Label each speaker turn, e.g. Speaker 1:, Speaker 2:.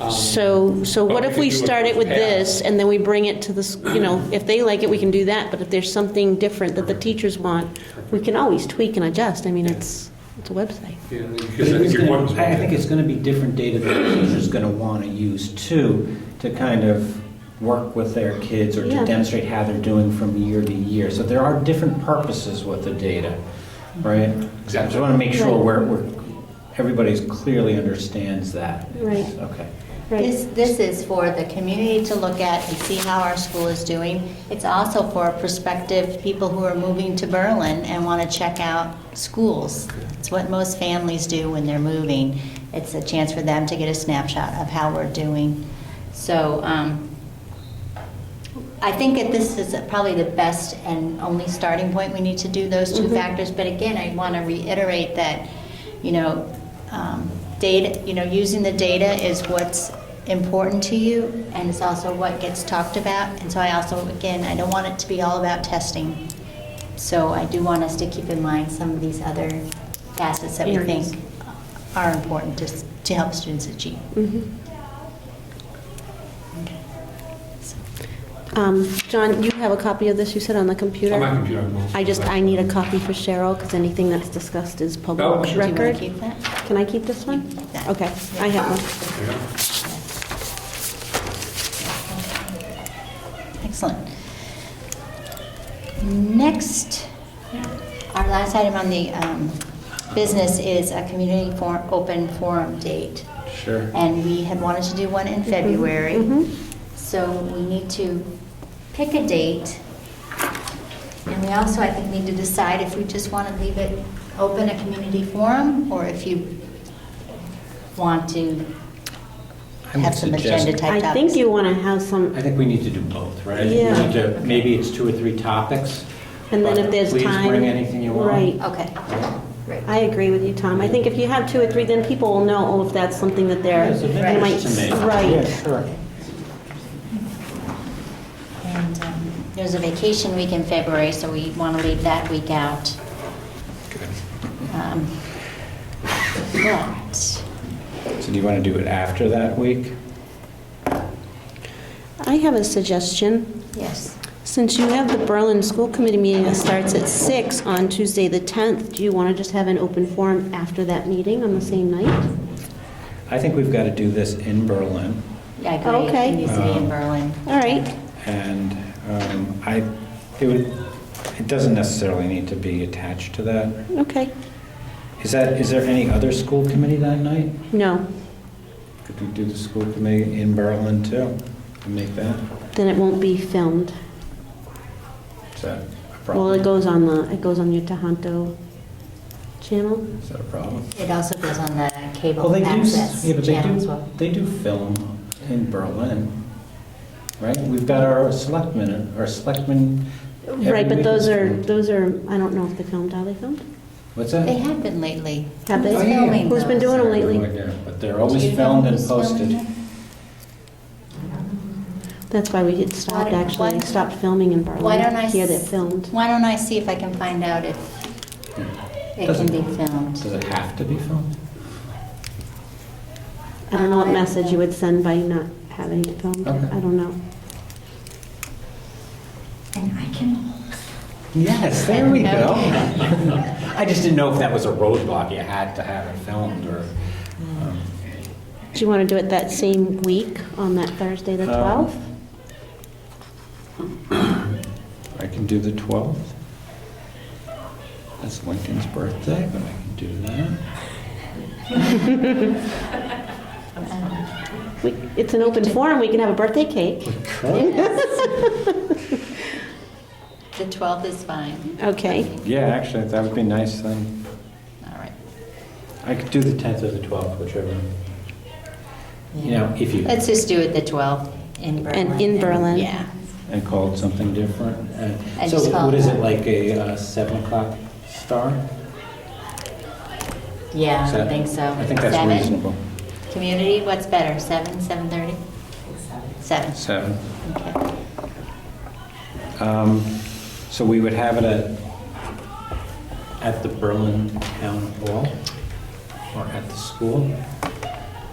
Speaker 1: Um,
Speaker 2: So, so
Speaker 1: But
Speaker 2: what
Speaker 1: we
Speaker 2: if
Speaker 1: could
Speaker 2: we
Speaker 1: do it
Speaker 2: start it
Speaker 1: with
Speaker 2: with
Speaker 1: half.
Speaker 2: this, and then we bring it to this, you know, if they like it, we can do that, but if there's something different that the teachers want, we can always tweak and adjust, I mean, it's, it's a website.
Speaker 1: Yeah,
Speaker 3: But
Speaker 1: because I think
Speaker 3: it's
Speaker 1: your
Speaker 3: gonna-
Speaker 1: point was.
Speaker 3: I I think it's going to be different data that the teacher's going to want to use too, to kind of work with their kids or
Speaker 2: Yeah.
Speaker 3: to demonstrate how they're doing from year to year. So there are different purposes with the data, right? I just
Speaker 1: Exactly.
Speaker 3: want to make sure
Speaker 2: Right.
Speaker 3: we're, we're- everybody's clearly understands that.
Speaker 2: Right.
Speaker 3: Okay.
Speaker 2: Right,
Speaker 4: This, this is for the community to look at and see how our school is doing. It's also for prospective people who are moving to Berlin and want to check out schools. It's what most families do when they're moving. It's a chance for them to get a snapshot of how we're doing. So um, I think that this is probably the best and only starting point. We need to do those two
Speaker 2: Mhm.
Speaker 4: factors. But again, I want to reiterate that, you know, um, data, you know, using the data is what's important to you, and it's also what gets talked about. And so I also, again, I don't want it to be all about testing. So I do want us to keep in mind some of these other facets that we
Speaker 2: Areas.
Speaker 4: think are important to, s- to help students achieve.
Speaker 2: mhm. Um, John, you have a copy of this, you said, on the computer?
Speaker 1: On my computer, I'm not-
Speaker 2: I just, I need a copy for Cheryl, because anything that's discussed is
Speaker 1: Oh,
Speaker 2: public
Speaker 1: sure.
Speaker 4: Do you want
Speaker 2: record.
Speaker 4: to keep that?
Speaker 2: Can I keep this one?
Speaker 4: You can keep that.
Speaker 2: Okay, I have one.
Speaker 1: There you go.
Speaker 4: Excellent. Next, our last item on the um, business is a community for open forum date.
Speaker 3: Sure.
Speaker 4: And we had wanted to do one in
Speaker 2: Mm-hmm.
Speaker 4: February.
Speaker 2: mhm.
Speaker 4: So we need to pick a date. And we also, I think, need to decide if we just want to leave it open, a community forum, or if you want to
Speaker 3: I would
Speaker 4: have some
Speaker 3: suggest-
Speaker 4: agenda type
Speaker 2: I
Speaker 4: topics.
Speaker 2: think you want to have
Speaker 3: I
Speaker 2: some,
Speaker 3: think we need to do both, right? I think we
Speaker 2: Yeah.
Speaker 3: need to- Maybe it's two or three topics.
Speaker 2: and then
Speaker 3: but
Speaker 2: if there's time.
Speaker 3: Please bring anything you want.
Speaker 2: Right.
Speaker 4: Okay, great.
Speaker 2: I agree with you, Tom. I think if you have two or three, then people will know, oh, if that's something that they're,
Speaker 3: It's of
Speaker 4: Right.
Speaker 2: they might,
Speaker 3: interest to me. Yeah,
Speaker 2: right.
Speaker 3: sure.
Speaker 4: And um, there's a vacation week in February, so we want to leave that week out. Um, But,
Speaker 3: So do you want to do it after that week?
Speaker 2: I have a suggestion.
Speaker 4: yes,
Speaker 2: Since you have the Berlin School Committee meeting that starts at six on Tuesday, the 10th, do you want to just have an open forum after that meeting on the same night?
Speaker 3: I think we've got to do this in Berlin,
Speaker 4: I agree,
Speaker 2: Okay.
Speaker 4: it needs to be in
Speaker 3: Um,
Speaker 4: Berlin.
Speaker 2: All right.
Speaker 3: and um, I, it would, it doesn't necessarily need to be attached to that.
Speaker 2: Okay.
Speaker 3: Is that, is there any other school committee that night?
Speaker 2: No,
Speaker 3: Could we do the school committee in Berlin too? And make that,
Speaker 2: then it won't be filmed.
Speaker 3: is that a
Speaker 2: Well, it
Speaker 3: problem?
Speaker 2: goes on the, it goes on your Tohoto channel.
Speaker 3: Is that a problem?
Speaker 4: It also goes on the
Speaker 3: Well,
Speaker 4: cable
Speaker 3: Oh, they do,
Speaker 4: access
Speaker 3: s- yeah, but they
Speaker 4: channel as
Speaker 3: do,
Speaker 4: well.
Speaker 3: they do film in Berlin, right? We've got our selectmen, our selectmen. every
Speaker 2: Right, but
Speaker 3: week
Speaker 2: those
Speaker 3: is
Speaker 2: are,
Speaker 3: filmed.
Speaker 2: those are, I don't know if they filmed, are they filmed?
Speaker 3: What's
Speaker 4: They
Speaker 3: that?
Speaker 4: have been lately.
Speaker 2: Have they?
Speaker 3: Oh,
Speaker 4: Who's
Speaker 3: yeah.
Speaker 4: filming
Speaker 2: Who's been
Speaker 4: those?
Speaker 2: doing them lately?
Speaker 3: But they're
Speaker 4: Do
Speaker 3: always
Speaker 4: you know
Speaker 3: filmed and
Speaker 4: who's filming
Speaker 3: posted.
Speaker 4: them?
Speaker 2: That's why we had stopped,
Speaker 4: Why-
Speaker 2: actually,
Speaker 4: why-
Speaker 2: stopped filming in Berlin.
Speaker 4: Why don't I?
Speaker 2: Here they
Speaker 4: s-
Speaker 2: filmed.
Speaker 4: Why don't I see if I can find out if it can
Speaker 3: Doesn't-
Speaker 4: be filmed?
Speaker 3: Does it have to be filmed?
Speaker 2: I don't know what
Speaker 4: Um,
Speaker 2: message you would send by not having it filmed.
Speaker 3: Okay.
Speaker 2: I don't know.
Speaker 4: And I can.
Speaker 3: Yes, there we go.
Speaker 4: Okay.
Speaker 3: I just didn't know if that was a roadblock, you had to have it filmed, or... um,
Speaker 2: Do you want to do it that same week, on that Thursday, the
Speaker 3: Um,
Speaker 2: 12th?
Speaker 3: I can do the 12th. That's Lincoln's birthday, but I can do that.
Speaker 2: We- It's an open forum, we can have a birthday cake.
Speaker 4: The 12th is fine.
Speaker 2: Okay.
Speaker 3: Yeah, actually, that would be a nice thing.
Speaker 4: All right.
Speaker 3: I could do the 10th or the 12th, whichever. You know, if you,
Speaker 4: Let's just do it the 12th in Berlin.
Speaker 2: And in Berlin.
Speaker 4: Yeah.
Speaker 3: and call it something different. Uh,
Speaker 4: I
Speaker 3: So
Speaker 4: just call
Speaker 3: what
Speaker 4: it
Speaker 3: is it,
Speaker 4: that.
Speaker 3: like a uh, 7 o'clock start?
Speaker 4: Yeah,
Speaker 3: Is
Speaker 4: I
Speaker 3: that-
Speaker 4: think so.
Speaker 3: I think that's
Speaker 4: Seven?
Speaker 3: reasonable.
Speaker 4: Community, what's better, 7, 7:30? 7.
Speaker 3: 7.
Speaker 4: Okay.
Speaker 3: Um, So we would have it at, at the Berlin Town Hall or at the school?